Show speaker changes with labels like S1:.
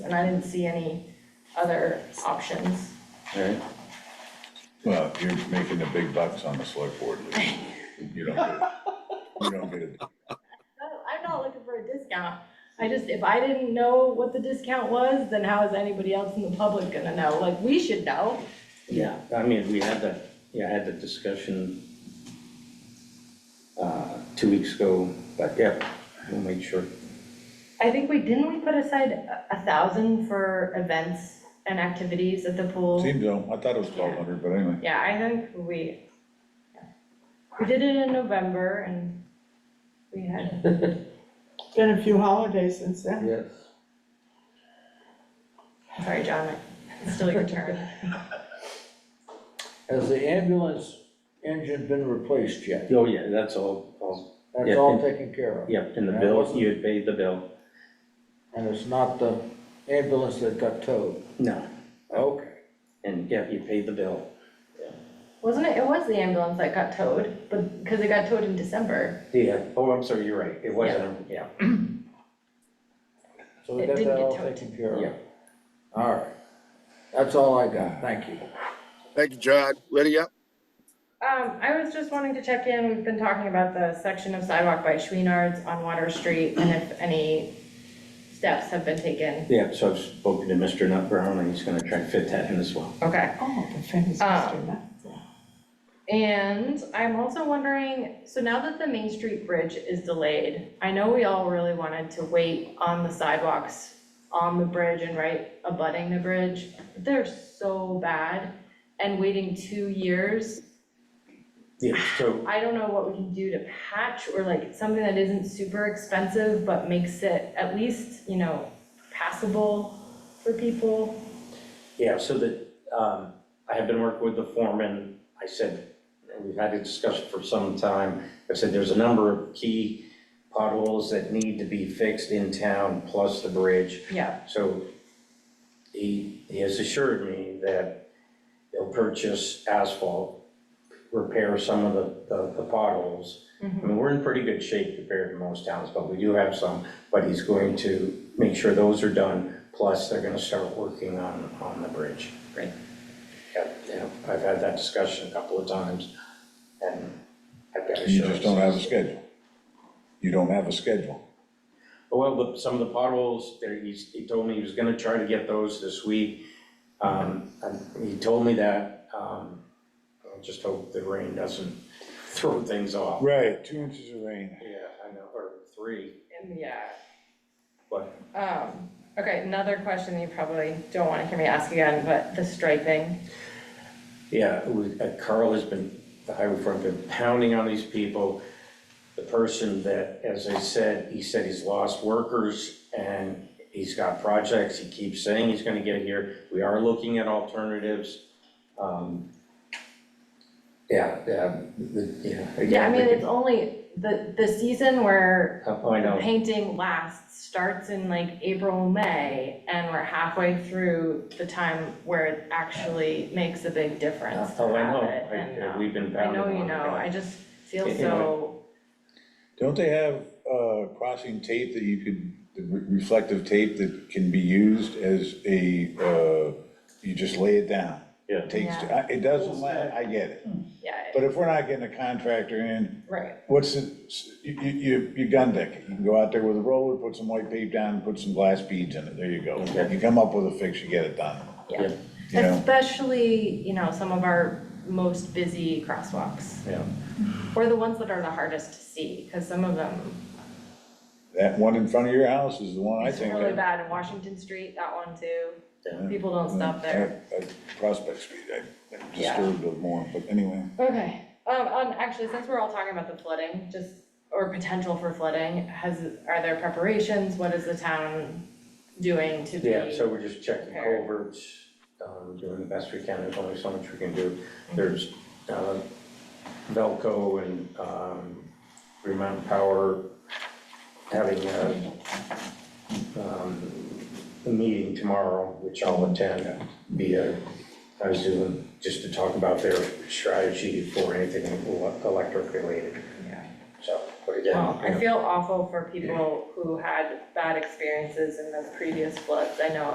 S1: and I didn't see any other options.
S2: Alright,
S3: Well, you're making the big bucks on the select board. You don't get, you don't get it.
S1: No, I'm not looking for a discount. I just, if I didn't know what the discount was, then how is anybody else in the public gonna know? Like, we should know.
S4: Yeah, I mean, we had that, yeah, I had the discussion uh, two weeks ago, but yeah, we'll make sure.
S1: I think we, didn't we put aside a- a thousand for events and activities at the pool?
S3: Seems so, I thought it was twelve hundred, but anyway.
S1: Yeah, I think we, we did it in November and we had,
S5: Been a few holidays since then.
S4: Yes.
S1: sorry, John, it's still your turn.
S6: Has the ambulance engine been replaced yet?
S4: Oh, yeah, that's all, all, Yeah.
S6: That's all taken care of?
S4: yeah, in the
S6: Yeah,
S4: bill,
S6: wasn't-
S4: you had paid the bill.
S6: And it's not the ambulance that got towed?
S4: No,
S6: Okay.
S4: and yeah, you paid the bill.
S1: Wasn't it, it was the ambulance that got towed, but, because it got towed in December.
S4: Yeah, oh, I'm sorry, you're right, it wasn't, yeah.
S6: So we
S1: It
S6: got
S1: didn't
S6: that
S1: get
S6: all
S1: towed.
S6: taken care of?
S4: Yeah.
S6: All right. That's all I got. Thank you.
S7: Thank you, John. Lydia?
S1: Um, I was just wanting to check in, we've been talking about the section of sidewalk by Schweenard's on Water Street and if any steps have been taken.
S4: Yeah, so I've spoken to Mr. Nut Brown, and he's gonna try and fit that in as well.
S1: Okay.
S5: Oh, the famous
S1: Ah.
S5: Mr. Nutt.
S1: And I'm also wondering, so now that the Main Street Bridge is delayed, I know we all really wanted to wait on the sidewalks on the bridge and right abutting the bridge. They're so bad and waiting two years,
S4: Yeah, so,
S1: I don't know what we can do to patch or like something that isn't super expensive, but makes it at least, you know, passable for people.
S4: yeah, so that, um, I have been working with the foreman, I said, and we've had a discussion for some time, I said, there's a number of key potholes that need to be fixed in town, plus the bridge.
S1: Yeah,
S4: So he, he has assured me that he'll purchase asphalt, repair some of the, the- the potholes. I mean, we're in pretty good shape compared to most towns, but we do have some, but he's going to make sure those are done. Plus, they're gonna start working on, on the bridge.
S1: Great.
S4: Yeah, yeah, I've had that discussion a couple of times and I've got
S3: You
S4: assurance.
S3: just don't have a schedule. You don't have a schedule.
S4: Oh, Well, the, some of the potholes, there, he's, he told me he was gonna try to get those this week. Um, and he told me that, um, I just hope the rain doesn't throw things off.
S3: Right, two inches of rain.
S4: Yeah, I know, or three,
S1: and yeah.
S4: but
S1: Um, okay, another question that you probably don't wanna hear me ask again, but the striping.
S4: Yeah, it was- uh, Carl has been, the highway department, been pounding on these people. The person that, as I said, he said he's lost workers and he's got projects, he keeps saying he's gonna get here. We are looking at alternatives. Um, Yeah, yeah, the- yeah.
S1: Yeah, I
S4: again,
S1: mean,
S4: we
S1: it's only the, the season where
S4: could- I know,
S1: painting lasts starts in like April, May, and we're halfway through the time where it actually makes a big difference to
S4: oh, I
S1: have
S4: know,
S1: it. and,
S4: I-
S1: um,
S4: we've been
S1: I
S4: pounding
S1: know
S4: on it.
S1: you know, I just feel
S4: You know,
S1: so,
S3: Don't they have, uh, crossing tape that you could, the re- reflective tape that can be used as a, uh, you just lay it down?
S4: Yeah.
S3: Takes,
S1: Yeah.
S3: I- it doesn't last, I get it.
S1: yeah,
S3: But if we're not getting a contractor in,
S1: right,
S3: What's the, you, you- you, you gun deck it, you can go out there with a roller, put some white paint down, put some glass beads in it, there you go.
S4: Okay.
S3: You come up with a fix, you get it done,
S1: yeah.
S3: you know?
S1: Especially, you know, some of our most busy crosswalks.
S4: Yeah.
S1: Or the ones that are the hardest to see, because some of them,
S3: That one in front of your house is the one I
S1: it's
S3: think.
S1: really
S3: I-
S1: bad in Washington Street, that one too.
S4: Yeah.
S1: People don't stop there.
S3: Mm, I- I- Prospect Street, I I'm
S1: Yeah.
S3: disturbed it more, but anyway.
S1: Okay, um, um, actually, since we're all talking about the flooding, just, or potential for flooding, has, are there preparations? What is the town doing to be?
S4: Yeah, so we're just checking
S1: prepared.
S4: culverts, um, doing the best we can, there's only so much we can do. There's, uh, Velco and, um, Green Mountain Power having a, um, a meeting tomorrow, which I'll attend, via, I was doing, just to talk about their strategy for anything ele- electric related,
S1: Yeah.
S4: so, but again.
S1: Well,
S4: you
S1: I
S4: know.
S1: feel awful for people who had bad experiences in the previous floods. I know